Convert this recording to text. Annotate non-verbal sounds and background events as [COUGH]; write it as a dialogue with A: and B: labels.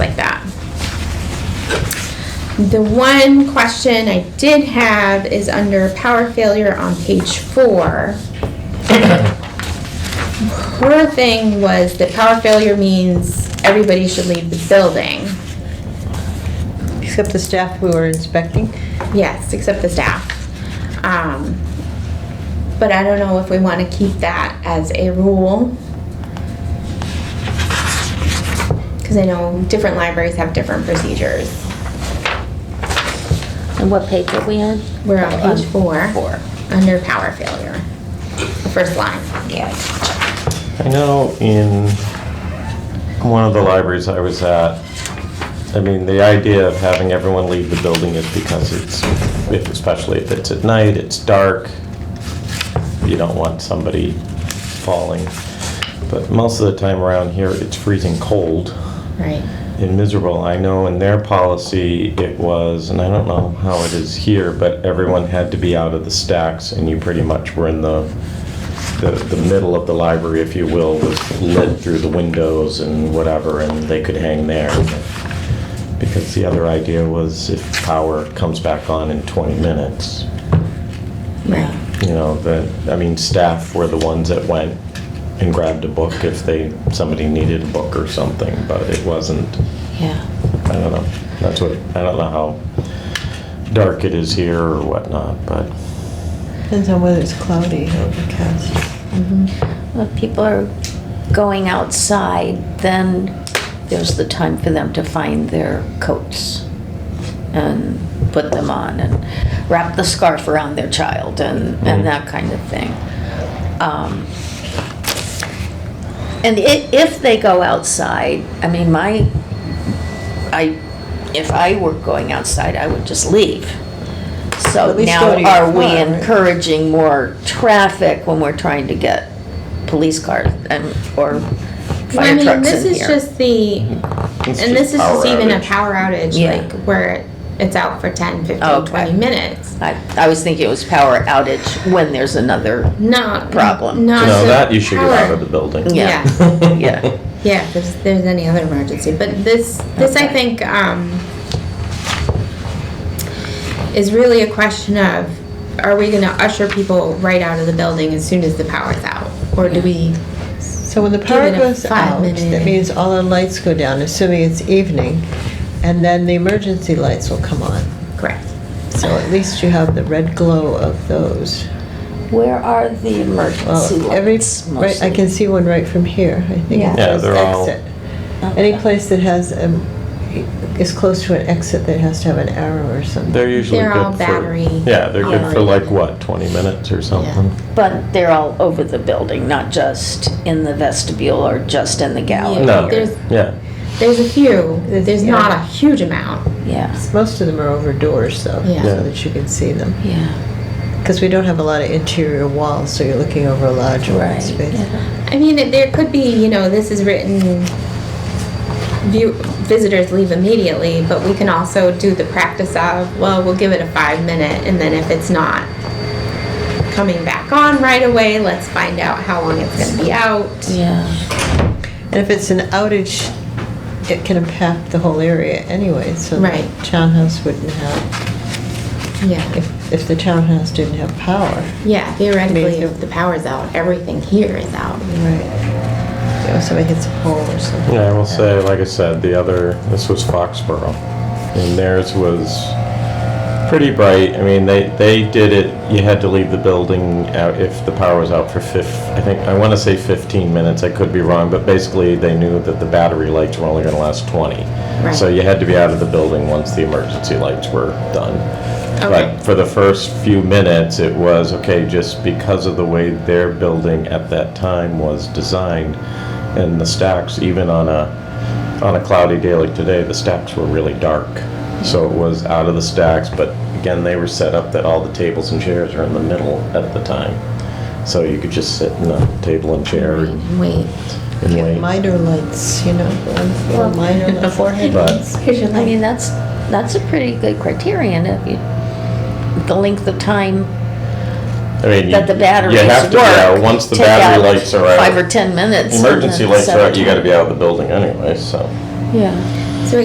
A: The one question I did have is under power failure on page four. Her thing was that power failure means everybody should leave the building.
B: Except the staff we were inspecting.
A: Yes, except the staff. Um, But I don't know if we want to keep that as a rule. Because I know different libraries have different procedures.
C: And what page are we on?
A: We're on page four.
C: Um, Four.
A: Under power failure. The first line.
C: Yeah.
D: I know in one of the libraries I was at, I mean, the idea of having everyone leave the building is because it's, if- especially if it's at night, it's dark, you don't want somebody falling. But most of the time around here, it's freezing cold
A: Right.
D: and miserable. I know in their policy, it was, and I don't know how it is here, but everyone had to be out of the stacks, and you pretty much were in the, the, the middle of the library, if you will, was lit through the windows and whatever, and they could hang there. Because the other idea was if power comes back on in 20 minutes,
A: Right.
D: you know, that, I mean, staff were the ones that went and grabbed a book if they, somebody needed a book or something, but it wasn't,
C: Yeah.
D: I don't know. That's what, I don't know how dark it is here or whatnot, but
B: Depends on whether it's cloudy or overcast.
C: Well, if people are going outside, then there's the time for them to find their coats and put them on and wrap the scarf around their child and,
B: Mm-hmm.
C: and that kind of thing. Um, And i- if they go outside, I mean, my, I, if I were going outside, I would just leave. So
B: At least go
C: now
B: to your
C: are we
B: car, right?
C: encouraging more traffic when we're trying to get police cars and, or
A: Well, I
C: fire
A: mean,
C: trucks
A: this
C: in
A: is
C: here?
A: just the,
D: It's
A: and this
D: just
A: is
D: power
A: just even a
D: outage.
A: power outage,
C: Yeah. Oh,
A: like where it's out for 10, 15,
C: Okay.
A: 20 minutes.
C: I, I was thinking it was power outage when there's another,
A: Not.
C: Problem.
A: Not.
D: you know,
A: the
D: that you should get out
A: power.
D: of the building. [LAUGHS]
C: Yeah.
B: [LAUGHS]
C: [LAUGHS] yeah.
A: Yeah, if there's, there's any other emergency, but this, this I
C: Okay.
A: think, um, is really a question of, are we gonna usher people right out of the building as soon as the power's out? Or do we,
B: So when the
A: Give
B: power
A: it a
B: goes
A: five
B: out,
A: minute.
B: that means all the lights go down, assuming it's evening, and then the emergency lights will come on.
A: correct?
B: So at least you have the red glow of those.
C: Where are the emergency
B: Well, every,
C: lights
B: right, I can see one right from here, I think. it
C: Yeah.
D: Yeah,
B: says
D: they're all-
B: exit. Any place that has, um, is close to an exit that has to have an arrow or something.
D: They're usually
A: They're
D: good
A: all
D: for-
A: battery
D: Yeah, they're good for
A: powered.
D: like what, 20 minutes or something?
C: But they're all over the building, not just in the vestibule or just in the gallery.
D: No,
A: There's-
D: yeah.
A: There's a few,
B: There's-
A: there's
B: yeah.
A: not a huge amount.
C: Yeah,
B: Most of them are over doors, though,
A: Yeah.
D: Yeah.
B: so that you can see them.
C: yeah,
B: Because we don't have a lot of interior walls, so you're looking over a large open
C: right.
B: space.
A: I mean, it- there could be, you know, this is written, view, visitors leave immediately, but we can also do the practice of, well, we'll give it a five minute, and then if it's not coming back on right away, let's find out how long it's gonna be out.
C: Yeah,
B: And if it's an outage, it can impact the whole area anyway, so
A: Right.
B: the townhouse wouldn't have,
A: Yeah,
B: if, if the townhouse didn't have power.
A: yeah, theoretically,
B: Maybe.
A: if the power's out, everything here is out.
B: Right. You know, somebody hits a pole or something.
D: Yeah, I will
B: like that.
D: say, like I said, the other, this was Foxborough, and theirs was pretty bright. I mean, they, they did it, you had to leave the building out if the power was out for fif, I think, I want to say 15 minutes, I could be wrong, but basically, they knew that the battery lights were only going to last 20. So
A: Right.
D: you had to be out of the building once the emergency lights were done.
A: Okay.
D: But for the first few minutes, it was, okay, just because of the way their building at that time was designed, and the stacks, even on a, on a cloudy day like today, the stacks were really dark. So it was out of the stacks, but again, they were set up that all the tables and chairs are in the middle at the time. So you could just sit in a table and chair and
A: Wait.
D: and
B: Get
D: wait.
B: Minor lights, you know, the ones that are minor lights. Beforehand.
D: But,
A: Here's your
C: I
A: light.
C: mean, that's, that's a pretty good criterion if you, the length of time
D: I mean, you you
C: that
D: have
C: the
D: to,
C: batteries work.
D: yeah, once the
C: take
D: battery
C: out
D: lights are out.
C: Five or 10 minutes. and
D: Emergency
C: then
D: lights
C: set
D: are out, you
C: a time.
D: gotta be out of the building anyway, so.
C: Yeah,